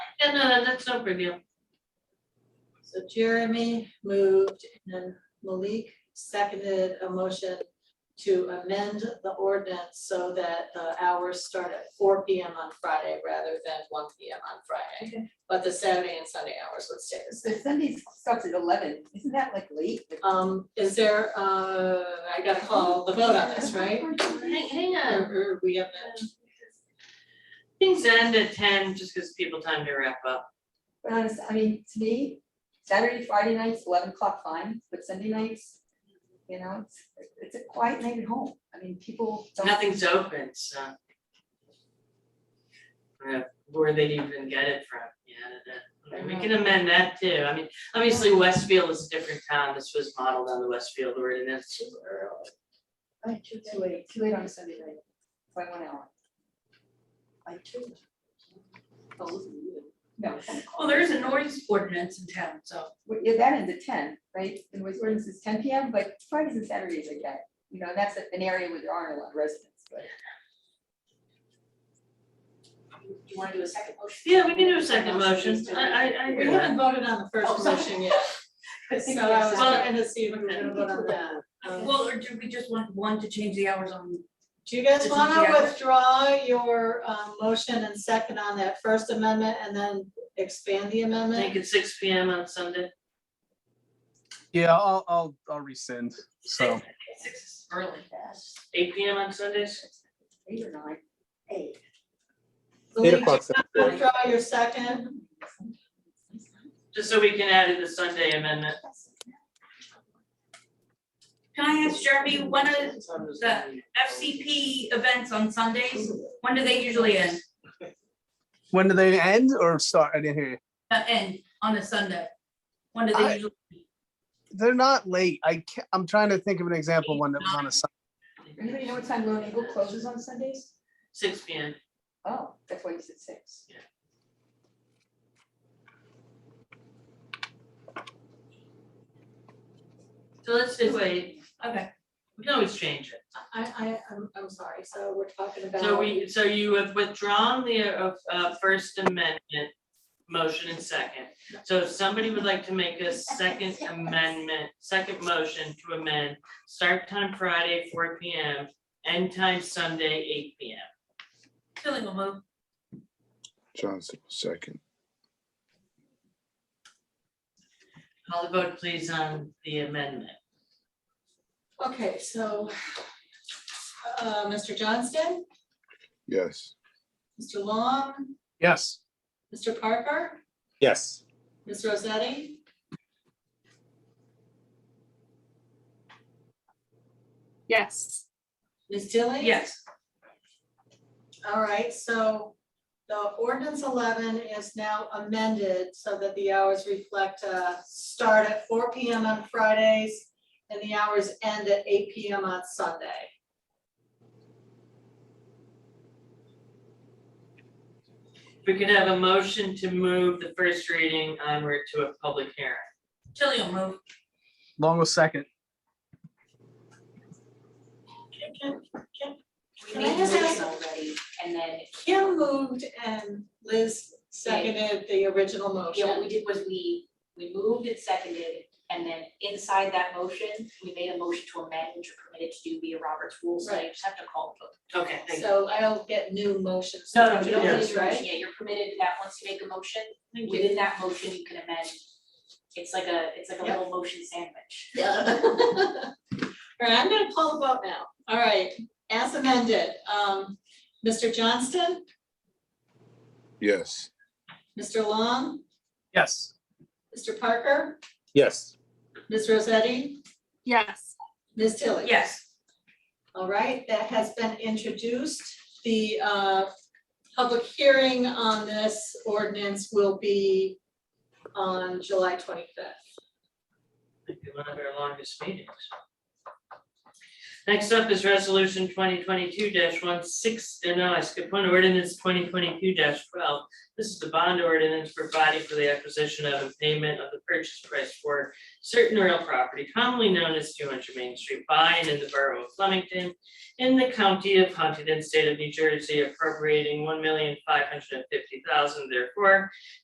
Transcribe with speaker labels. Speaker 1: Yeah, no, uh, that's no big deal.
Speaker 2: So Jeremy moved and Malik seconded a motion to amend the ordinance so that the hours start at four P M on Friday rather than one P M on Friday. But the Saturday and Sunday hours would stay the same.
Speaker 3: So Sunday starts at eleven, isn't that like late?
Speaker 2: Um, is there, uh, I gotta call the vote on this, right?
Speaker 1: Hang, hang
Speaker 2: Or
Speaker 1: on.
Speaker 2: or we have that,
Speaker 1: Things end at ten just because people time to wrap up.
Speaker 3: But honestly, I mean, to me, Saturday, Friday nights, eleven o'clock fine, but Sunday nights, you know, it's, it's a quiet night at home. I mean, people don't.
Speaker 1: Nothing's open, so. Uh, Where they'd even get it from, yeah, that, I mean, we can amend that too. I mean, obviously Westfield is a different town. This was modeled on the Westfield ordinance.
Speaker 3: Right, too too late, too late on a Sunday night, by one hour. I too. No.
Speaker 4: Well, there is a noise ordinance in town, so. uh,
Speaker 3: Well, yeah, that ends at ten, right? And was ordinance is ten P M, but Fridays and Saturdays I get, you know, that's an area where there aren't a lot of residents, but.
Speaker 4: Do you wanna do a second motion?
Speaker 1: Yeah, we can do a second motion. I, I, I
Speaker 2: we
Speaker 1: agree.
Speaker 2: haven't voted on the
Speaker 4: Oh,
Speaker 2: first
Speaker 4: sorry.
Speaker 2: motion yet, so I was trying to see if we were gonna vote on that. Um,
Speaker 4: Well, or do we just want one to change the hours on?
Speaker 2: Do you guys
Speaker 4: Does it
Speaker 2: wanna
Speaker 4: matter?
Speaker 2: withdraw your um motion and second on that first amendment and then expand the
Speaker 1: Make
Speaker 2: amendment?
Speaker 1: it six P M on Sunday.
Speaker 5: Yeah, I'll, I'll, I'll rescind, so.
Speaker 4: Six is early.
Speaker 1: Eight P M on Sundays?
Speaker 3: Eight or nine. Eight.
Speaker 2: Malik, do you
Speaker 6: o'clock sounds
Speaker 2: wanna
Speaker 6: good.
Speaker 2: Withdraw your second,
Speaker 1: Just so we can add in the Sunday amendment.
Speaker 4: Can I ask Jeremy, when are the FCP events on Sundays, when do they usually end,
Speaker 5: When do they end or start? I didn't hear you.
Speaker 4: uh, end on a Sunday? When do
Speaker 5: I-
Speaker 4: they usually?
Speaker 5: They're not late. I can't, I'm trying to think of an example, one that was on a Sunday.
Speaker 3: Anybody know what time Lone Eagle closes on Sundays?
Speaker 1: Six P M.
Speaker 3: Oh, that's why you said six.
Speaker 1: So let's do wait,
Speaker 4: Okay,
Speaker 1: we can always change it.
Speaker 2: I I I'm I'm sorry, so we're talking about.
Speaker 1: So we, so you have withdrawn the uh, uh, First Amendment motion and second. So if somebody would like to make a second amendment, second motion to amend, start time Friday, four P M, end time Sunday, eight P M.
Speaker 4: Tilling will move.
Speaker 6: Johnson will second.
Speaker 1: Call the vote please on the amendment.
Speaker 2: Okay, so uh Mr. Johnston,
Speaker 6: Yes.
Speaker 2: Mr. Long,
Speaker 5: Yes,
Speaker 2: Mr. Parker,
Speaker 6: Yes.
Speaker 2: Ms. Rosetti?
Speaker 7: Yes.
Speaker 2: Ms. Tilly?
Speaker 4: Yes,
Speaker 2: All right, so the ordinance eleven is now amended so that the hours reflect, uh, start at four P M on Fridays and the hours end at eight P M on Sunday.
Speaker 1: We could have a motion to move the first reading onward to a public hearing.
Speaker 4: Tilling will move.
Speaker 5: long was second.
Speaker 2: Can I just ask-
Speaker 3: already, and then,
Speaker 2: Kim moved and Liz seconded the original
Speaker 3: yeah, what we
Speaker 2: motion.
Speaker 3: did was we, we moved it seconded, and then inside that motion, we made a motion to amend, which are permitted to do via Robert's rules, so you just have to call the vote.
Speaker 1: Okay, thank you.
Speaker 2: So I'll get new motions.
Speaker 3: No, no, you don't
Speaker 1: Yeah.
Speaker 3: need your motion, yeah, you're permitted that once you make a motion, within that motion, you can amend. It's like a, it's like a
Speaker 2: Yep.
Speaker 3: little motion sandwich.
Speaker 2: Yeah. All right, I'm gonna call the vote now. All right, as amended, um, Mr. Johnston,
Speaker 6: Yes.
Speaker 2: Mr. Long,
Speaker 5: Yes,
Speaker 2: Mr. Parker,
Speaker 6: Yes.
Speaker 2: Ms. Rosetti,
Speaker 7: Yes.
Speaker 2: Ms. Tilly.
Speaker 4: Yes,
Speaker 2: All right, that has been introduced. The uh, public hearing on this ordinance will be on July 25th.
Speaker 1: One of our longest meetings. Next up is resolution twenty twenty-two one six, uh, no, I skipped one, ordinance twenty twenty-two twelve. This is the bond ordinance providing for the acquisition of and payment of the purchase price for certain real property commonly known as two hundred Main Street by and in the borough of Flemington in the county of Huntington, state of New Jersey appropriating one million five hundred and fifty thousand therefore